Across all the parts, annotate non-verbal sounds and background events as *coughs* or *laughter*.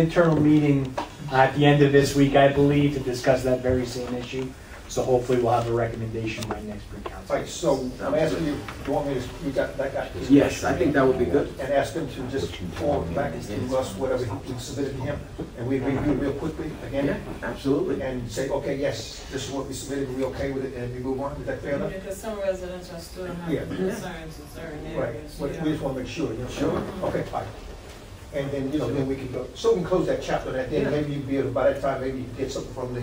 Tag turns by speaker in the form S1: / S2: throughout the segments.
S1: internal meeting at the end of this week, I believe, to discuss that very same issue. So hopefully we'll have a recommendation by next pre council.
S2: Right, so I'm asking you, do you want me to, you got that guy?
S3: Yes, I think that would be good.
S2: And ask him to just forward back to us whatever we submitted to him, and we review real quickly
S3: Yeah,
S2: again,
S3: absolutely.
S2: and say, okay, yes, this is what we submitted, we okay with it, and we move on, is that fair enough?
S4: Because some residents are still
S2: Yeah.
S4: having concerns in certain
S2: Right,
S4: areas.
S2: but we
S4: yeah.
S2: just wanna make sure, you know? Sure. Okay, fine. And then, you know, then we can go, so we can close that chapter, and then maybe you'll be able, by that time, maybe you get something from the.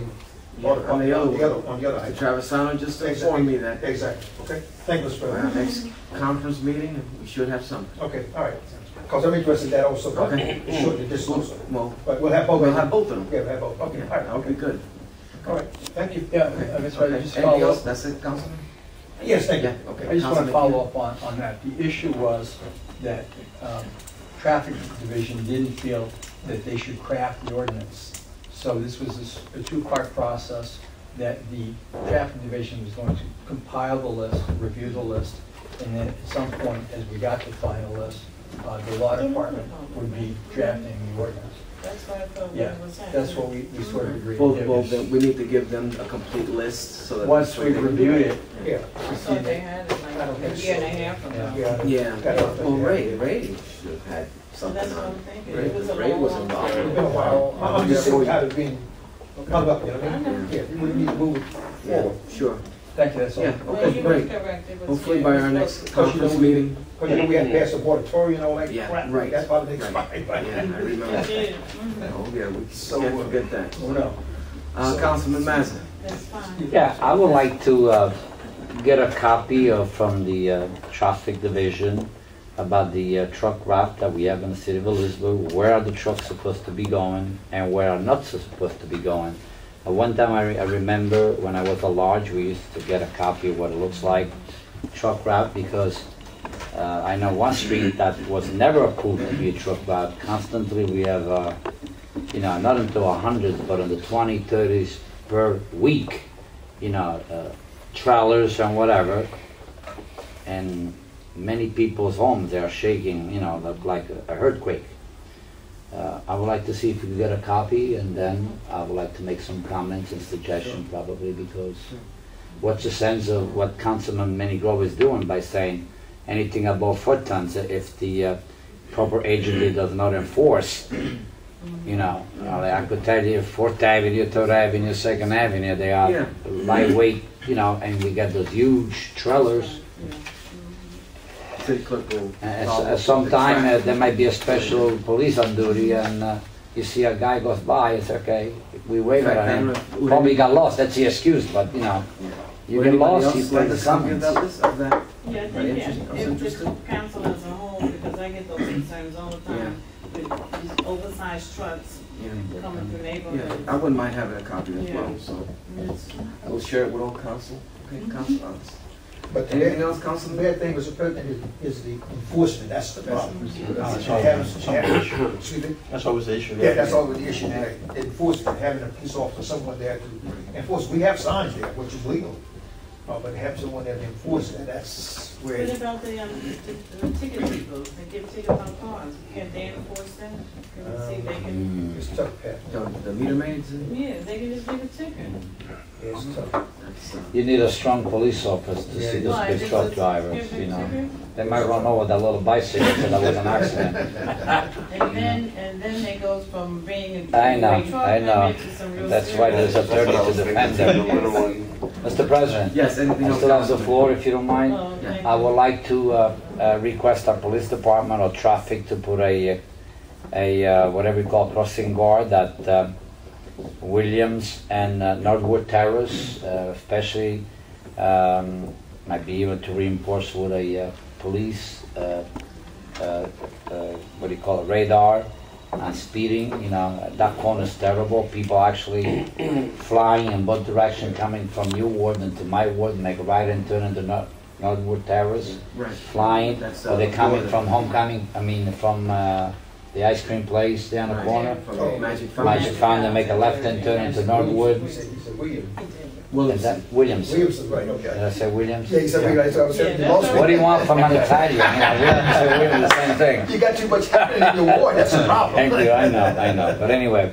S3: Yeah, on the other
S2: On
S3: one.
S2: the other, on the other.
S3: Mr.
S2: item.
S3: Travisano just informed me that
S2: Exactly, okay, thank you, Mr.
S3: for
S2: President.
S3: our next conference meeting, we should have something.
S2: Okay, all right, because I'm interested in that also, but
S3: Okay.
S2: short to this also.
S3: Well,
S2: But we'll
S5: Oh,
S2: have both.
S3: we'll have both of them.
S2: Yeah, we'll have both, okay, all
S3: Yeah,
S2: right,
S3: that would be
S2: okay,
S3: good.
S2: all right, thank you.
S5: Yeah, uh, Mr.
S3: Okay.
S5: President, just
S3: Anything
S5: follow
S3: else?
S5: up.
S3: That's it, Councilman?
S2: Yes, thank
S3: Yeah,
S2: you.
S3: okay.
S5: I just want
S3: Councilman
S5: to follow up on, on that. The issue was that um, Traffic Division didn't feel that they should craft the ordinance. So this was a s- a two-part process that the Traffic Division was going to compile the list, review the list, and then at some point, as we got the final list, uh, the law department would be drafting the ordinance.
S4: That's why I thought
S5: Yeah,
S4: that was happening.
S5: that's what we, we sort of agreed.
S3: Well, well, then we need to give them a complete list so that.
S5: Once we reviewed it,
S2: Yeah,
S4: I thought they had it
S2: I don't
S4: like a
S2: think
S4: year and a
S2: so.
S4: half
S5: Yeah.
S4: ago.
S2: yeah.
S3: Yeah,
S2: Got it.
S3: well, Ray, Ray should have had
S4: So
S3: something
S4: that's what I'm
S3: on.
S4: thinking.
S3: Ray
S4: It was a
S3: Ray was
S4: long
S3: involved.
S2: It's *laughs* been a while. I'm I'm just saying, how it's been, hung up, you know, what I mean? yeah, we need to move it
S3: Yeah,
S2: forward.
S3: sure.
S5: thank you, that's all.
S3: Yeah,
S4: Well,
S3: okay,
S4: you were
S3: great.
S4: correct. It was-
S3: Hopefully
S4: yeah,
S3: by
S4: it
S3: our
S4: was
S3: next
S4: supposed-
S2: Because you know
S3: conference
S2: we-
S3: meeting.
S2: Because you know, we had to pass the moratorium and all that
S3: Yeah,
S2: crap,
S3: right.
S2: that's probably
S3: Right.
S2: expired by
S3: Yeah,
S2: then.
S3: I remember.
S4: *laughs*
S3: that.
S4: Yeah, mhm,
S3: Oh, yeah, we
S2: So,
S3: can't
S2: uh,
S3: forget that.
S5: Oh, no.
S3: Uh, Councilman Mazza.
S4: That's fine.
S6: Yeah, I would like to uh, get a copy of, from the uh, traffic division about the uh, truck route that we have in the city of Elizabeth. Where are the trucks supposed to be going and where are not so supposed to be going? At one time, I re- I remember when I was a large, we used to get a copy of what it looks like, truck route, because uh, I know one street that was never approved to be a truck route. Constantly, we have, uh, you know, not until 100, but in the 20, 30s per week, you know, uh, trailers and whatever. And many people's homes they are shaking, you know, look like a a earthquake. Uh, I would like to see if we can get a copy, and then I would like to make some comments and suggestions probably because what's the sense of what Councilman Manny Grove is doing by saying anything above four tons if the uh, proper agency does not enforce? You know, you know, like I could tell you Fourth Avenue, Third Avenue, Second Avenue, they
S3: Yeah.
S6: are lightweight, you know, and we got those huge trailers.
S4: Yeah.
S3: City clerk will.
S6: And
S3: follow up
S6: Uh, at
S3: with
S6: some
S3: the
S6: time, uh,
S3: traffic.
S6: there might be a special police on duty, and uh, you see a guy goes by, it's okay, we wave
S3: Right,
S6: at him.
S3: then, would
S6: uh, Probably
S3: any-
S6: got lost, that's the excuse, but you know,
S3: Yeah.
S6: you
S3: Would
S6: get
S3: anybody
S6: lost,
S3: else
S6: you
S3: like
S6: play
S3: to
S6: the
S3: speak
S6: summons.
S3: about this, of that?
S4: Yeah, I
S3: Right,
S4: think, yeah,
S3: interesting. I was
S4: if the
S3: interested.
S4: council as a whole, because I get those concerns all the time with these oversized trucks
S3: Yeah.
S4: coming from
S3: Yeah,
S4: neighborhoods.
S3: I wouldn't mind having a copy as well,
S4: Yeah.
S3: so
S4: It's-
S3: I will share it with all council. Okay, council office.
S2: But the
S3: Anything
S2: bad,
S3: else,
S2: the
S3: councilman?
S2: bad thing, Mr. President, is, is the enforcement, that's the problem. Uh,
S7: That's
S2: she
S7: always,
S2: has- she has-
S7: Ah, that's
S2: Excuse me?
S7: always the issue.
S2: Yeah, that's always the issue, there. enforcement, having a police officer, someone there to enforce, we have signs there, which is legal. Uh, but have someone there to enforce it, that's where.
S4: What about the, um, the the ticket people, they give tickets on cars, can't they enforce that? Can we see if they can,
S2: It's tough, Pat.
S3: The the meter maids,
S6: Um,
S3: and-
S4: yeah, they can just give a ticket.
S2: It's tough.
S3: that's, uh,
S6: You need a strong police officer to see
S4: Why,
S6: those big
S4: just
S6: truck
S4: a-
S6: drivers,
S4: give a
S6: you know.
S4: ticket?
S6: They might run over that little bicycle
S3: *laughs*
S6: till there was an accident.
S4: And then, and then it goes from being a.
S6: I know,
S4: a truck
S6: I know.
S4: permit to some real
S6: That's why
S4: serious-
S6: there's a
S7: That's what I
S6: attorney to
S7: was thinking,
S6: defend
S7: the
S6: them.
S7: little one.
S3: *laughs*
S6: Mr. President,
S3: Yes, anything
S6: I
S3: else?
S6: still have the
S3: Councilman?
S6: floor if you don't mind.
S4: Oh,
S3: Yeah.
S4: thank
S6: I would
S4: you.
S6: like to uh, uh, request our police department or traffic to put a, a uh, whatever you call crossing guard at uh, Williams and uh, Northwood Terrace, uh, especially um, might be even to reinforce with a uh, police, uh, uh, uh, what do you call it, radar and speeding. You know, that corner is terrible.
S3: *coughs*
S6: People actually flying in both direction, coming from your ward into my ward, make a right and turn into Nor- Northwood Terrace
S3: Right.
S6: flying,
S3: That's,
S6: or
S3: uh,
S6: they're coming
S3: Florida.
S6: from homecoming, I mean, from uh, the ice cream place down the corner.
S3: From the Magic Fountain.
S6: Magic Fountain, make a left and turn into Northwood.
S2: You said, you said Williams.
S4: He did.
S6: Is
S3: Williams.
S6: that Williams? Did
S2: Williams is right, okay.
S6: I say Williams?
S2: Yeah, he said Williams, that's what I was saying.
S4: Yeah, that's
S2: Most
S6: What do you want from
S2: *laughs*
S3: *laughs*
S6: an Italian? You know, Williams and Williams, same thing.
S2: You got too much happening in your ward, that's the problem.
S6: Thank you, I know, I know. But anyway,